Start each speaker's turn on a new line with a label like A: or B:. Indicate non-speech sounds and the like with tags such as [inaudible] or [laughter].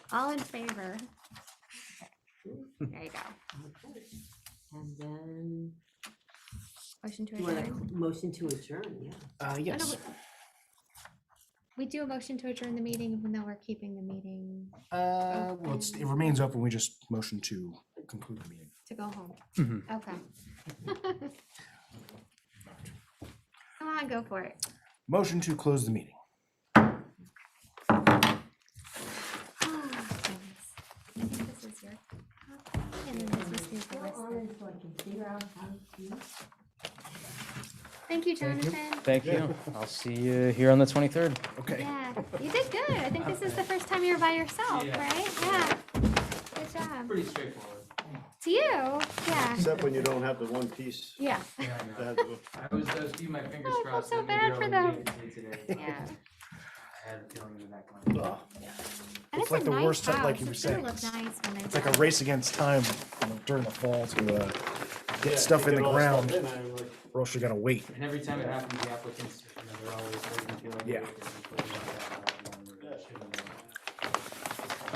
A: All in favor? There you go.
B: Okay. And then,
A: Motion to
B: do you want
A: adjourn.
B: a motion to adjourn? Yeah.
C: Uh,
A: Oh, no,
C: yes.
A: we- We do a motion to adjourn the meeting, even though we're keeping the meeting
C: Uh, well, it's, it remains open. We just motion to conclude the meeting.
A: to go home.
C: Mhm.
A: Okay. [laughs] Come on, go for it.
C: Motion to close the meeting.
A: Oh, goodness. I think this is your copy, and then this is the rest of-
B: so I can figure out how to.
A: Thank you,
C: Thank you.
A: Jonathan.
D: Thank you. I'll see you here on the 23rd.
C: Okay.
A: Yeah, you did good. I think this is the first time you were by yourself,
E: Yeah.
A: right? Yeah. Good job.
E: Pretty straightforward.
A: To you, yeah,
F: Except when you don't have the one piece
A: yeah,
E: Yeah,
F: to
E: I know.
F: have the.
E: I was, I was keeping my fingers
A: I felt
E: crossed.
A: so
E: that maybe
A: bad
E: I
A: for
E: would
A: them.
E: make it today, but
A: yeah.
E: I had a feeling in the back of
C: Uh,
E: my mind.
A: And
C: It's like
A: a
C: the
A: nice
C: worst time, like
A: house.
C: you were
A: It's gonna
C: saying,
A: look
C: it's-
A: nice when they're
C: It's like a
A: done.
C: race against time you know, during the fall to, uh,
F: Yeah,
C: get stuff in
F: get
C: the
F: all
C: ground.
F: in, I'm like,
C: Or else you gotta wait.
E: And every time it happens, the applicants, you know, they're always waiting to.
C: Yeah.
E: like,